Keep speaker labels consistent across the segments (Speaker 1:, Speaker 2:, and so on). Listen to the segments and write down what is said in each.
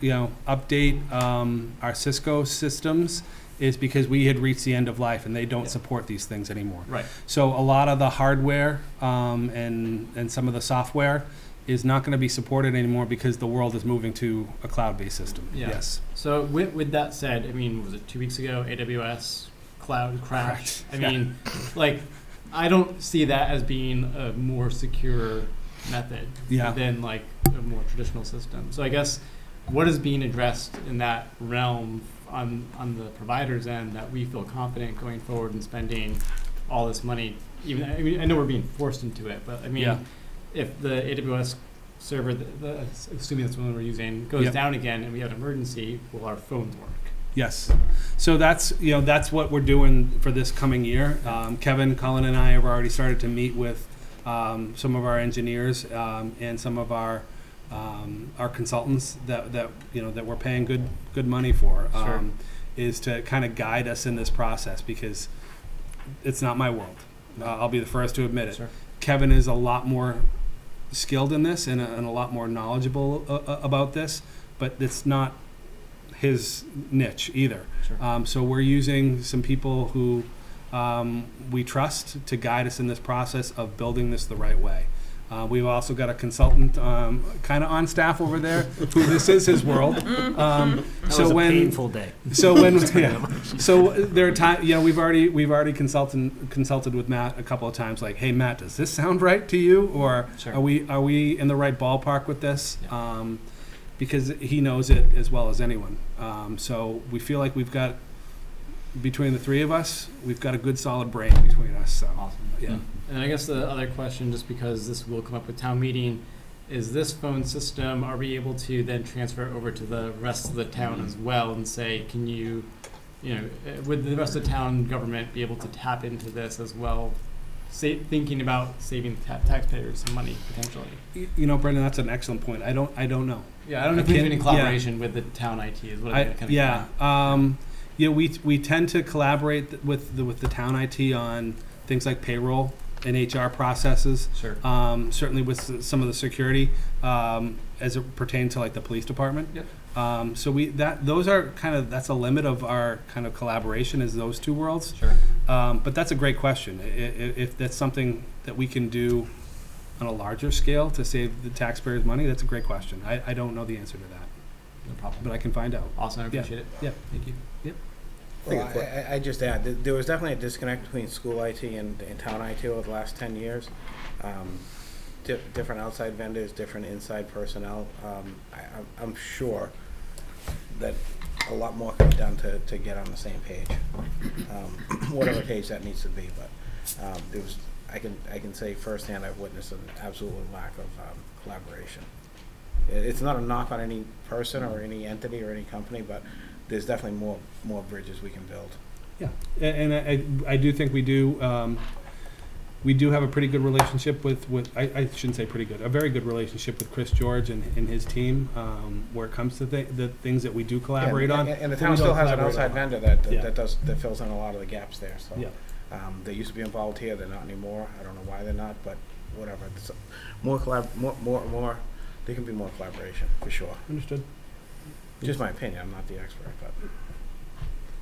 Speaker 1: you know, update um, our Cisco systems is because we had reached the end of life and they don't
Speaker 2: Yeah.
Speaker 1: support these things anymore.
Speaker 2: Right.
Speaker 1: So a lot of the hardware um, and and some of the software is not going to be supported anymore because the world is moving to a cloud-based system.
Speaker 2: Yeah.
Speaker 1: Yes.
Speaker 2: So with, with that said, I mean, was it two weeks ago? AWS cloud crash.
Speaker 1: Crash,
Speaker 2: I
Speaker 1: yeah.
Speaker 2: mean, like, I don't see that as being a more secure method
Speaker 1: Yeah.
Speaker 2: than like a more traditional system. So I guess what is being addressed in that realm on on the provider's end that we feel confident going forward and spending all this money? Even I mean, I know we're being forced into it, but I mean,
Speaker 1: Yeah.
Speaker 2: if the AWS server, the, the, assuming that's the one we're using, goes
Speaker 1: Yep.
Speaker 2: down again and we have an emergency, will our phones work?
Speaker 1: Yes. So that's, you know, that's what we're doing for this coming year. Um, Kevin, Colin, and I have already started to meet with um, some of our engineers um, and some of our um, our consultants that, that you know that we're paying good good money for.
Speaker 2: Sure.
Speaker 1: Um, is to kind of guide us in this process because it's not my world. Uh, I'll be the first to admit it.
Speaker 2: Sure.
Speaker 1: Kevin is a lot more skilled in this and a, and a lot more knowledgeable uh, uh, about this, but it's not his niche either.
Speaker 2: Sure.
Speaker 1: Um, so we're using some people who um, we trust to guide us in this process of building this the right way. Uh, we've also got a consultant um, kind of on staff over there who this is his world. Um, so when
Speaker 3: day.
Speaker 1: so when yeah, so there are times you know we've already we've already consulted consulted with Matt a couple of times like hey Matt does this sound right to you or
Speaker 3: Sure.
Speaker 1: are we are we in the right ballpark with this um, because he knows it as well as anyone um, so we feel like we've got between the three of us we've got a good solid brain between us so
Speaker 2: Awesome.
Speaker 1: yeah
Speaker 2: And I guess the other question, just because this will come up with town meeting, is this phone system, are we able to then transfer over to the rest of the town as well and say, can you, you know, uh, would the rest of the town government be able to tap into this as well? Sa- thinking about saving ta- taxpayers some money potentially.
Speaker 1: Y- you know Brendan that's an excellent point I don't I don't know
Speaker 2: Yeah, I don't know
Speaker 1: I
Speaker 2: if we have
Speaker 1: can-
Speaker 2: any
Speaker 1: yeah.
Speaker 2: collaboration with the town IT is what I,
Speaker 1: I,
Speaker 2: kind of
Speaker 1: yeah, um, yeah, we, we tend to collaborate th- with the, with the town IT on things like payroll and HR processes.
Speaker 2: sure.
Speaker 1: Um, certainly with s- some of the security, um, as it pertains to like the police department. Yep. Um, so we, that, those are kind of, that's a limit of our kind of collaboration is those two worlds.
Speaker 2: Sure.
Speaker 1: Um, but that's a great question. I- i- if that's something that we can do on a larger scale to save the taxpayers money, that's a great question. I, I don't know the answer to that,
Speaker 2: No problem.
Speaker 1: but I can find out.
Speaker 2: Awesome, I
Speaker 1: Yeah.
Speaker 2: appreciate it.
Speaker 1: Yeah.
Speaker 2: Thank you.
Speaker 4: Well, I- I, I just add, that there was definitely a disconnect between school IT and, and town IT over the last ten years. Um, di- different outside vendors, different inside personnel. Um, I, I'm- I'm sure that a lot more could be done to, to get on the same page. Um, Whatever page that needs to be, but, um, there was, I can, I can say firsthand, I've witnessed an absolute lack of, um, collaboration. I- It's not a knock on any person or any entity or any company, but there's definitely more, more bridges we can build.
Speaker 1: A- And I- I, I do think we do, um, we do have a pretty good relationship with, with, I, I shouldn't say pretty good, a very good relationship with Chris George and, and his team, um, where it comes to the, the things that we do collaborate
Speaker 4: And-
Speaker 1: on.
Speaker 4: And and the
Speaker 1: but we
Speaker 4: town still
Speaker 1: don't
Speaker 4: has an
Speaker 1: collaborate
Speaker 4: outside
Speaker 1: on.
Speaker 4: vendor that,
Speaker 1: Yeah.
Speaker 4: that that does, that fills in a lot of the gaps there, so.
Speaker 1: Yeah.
Speaker 4: Um, they used to be involved here, they're not anymore, I don't know why they're not, but whatever. It's, uh, More collab, more, more, more, there can be more collaboration, for sure.
Speaker 1: Understood.
Speaker 4: Just my opinion, I'm not the expert, but.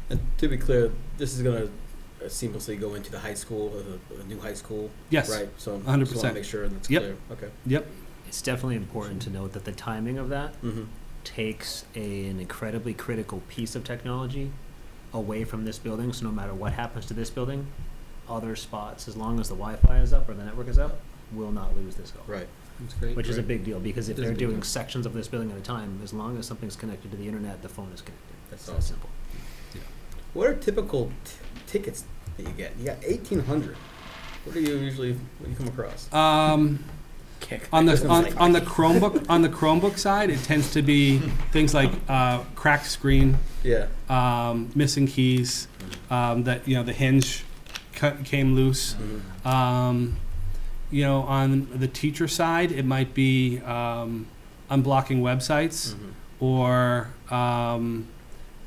Speaker 3: And to be clear, this is gonna uh, seamlessly go into the high school, uh, the, the new high school,
Speaker 1: Yes.
Speaker 3: right? So just wanna
Speaker 1: 100%.
Speaker 3: Make sure that's
Speaker 1: Yep.
Speaker 3: clear. Okay.
Speaker 5: It's definitely important to note that the timing of that
Speaker 3: Mm-hmm.
Speaker 5: takes a- an incredibly critical piece of technology away from this building. So no matter what happens to this building, other spots, as long as the Wi-Fi is up or the network is up, will not lose this goal.
Speaker 3: Right.
Speaker 2: That's great.
Speaker 5: Which is a
Speaker 3: Right.
Speaker 5: big deal because if
Speaker 2: It is a
Speaker 5: they're
Speaker 2: big
Speaker 5: doing
Speaker 2: deal.
Speaker 5: sections of this building at a time, as long as something's connected to the internet, the phone is connected.
Speaker 3: That's
Speaker 5: It's that
Speaker 3: awesome.
Speaker 5: simple.
Speaker 3: What are typical t- tickets that you get? You got eighteen hundred. What do you usually what do you come across?
Speaker 1: Um, on the, on, on the Chromebook, on the Chromebook side, it tends to be things like, uh, cracked screen,
Speaker 3: Yeah.
Speaker 1: um, missing keys, um, that, you know, the hinge cut, came loose.
Speaker 3: Mm-hmm.
Speaker 1: Um, you know, on the teacher side, it might be um, unblocking websites,
Speaker 3: Mhm.
Speaker 1: or um,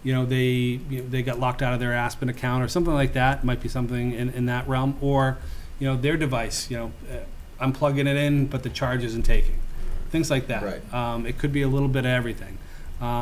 Speaker 1: you know they you know, they got locked out of their Aspen account or something like that. Might be something in, in that realm, or you know their device. You know, uh, I'm plugging it in, but the charge isn't taking. Things like that.
Speaker 3: Right.
Speaker 1: Um, it could be a little bit of everything. Um,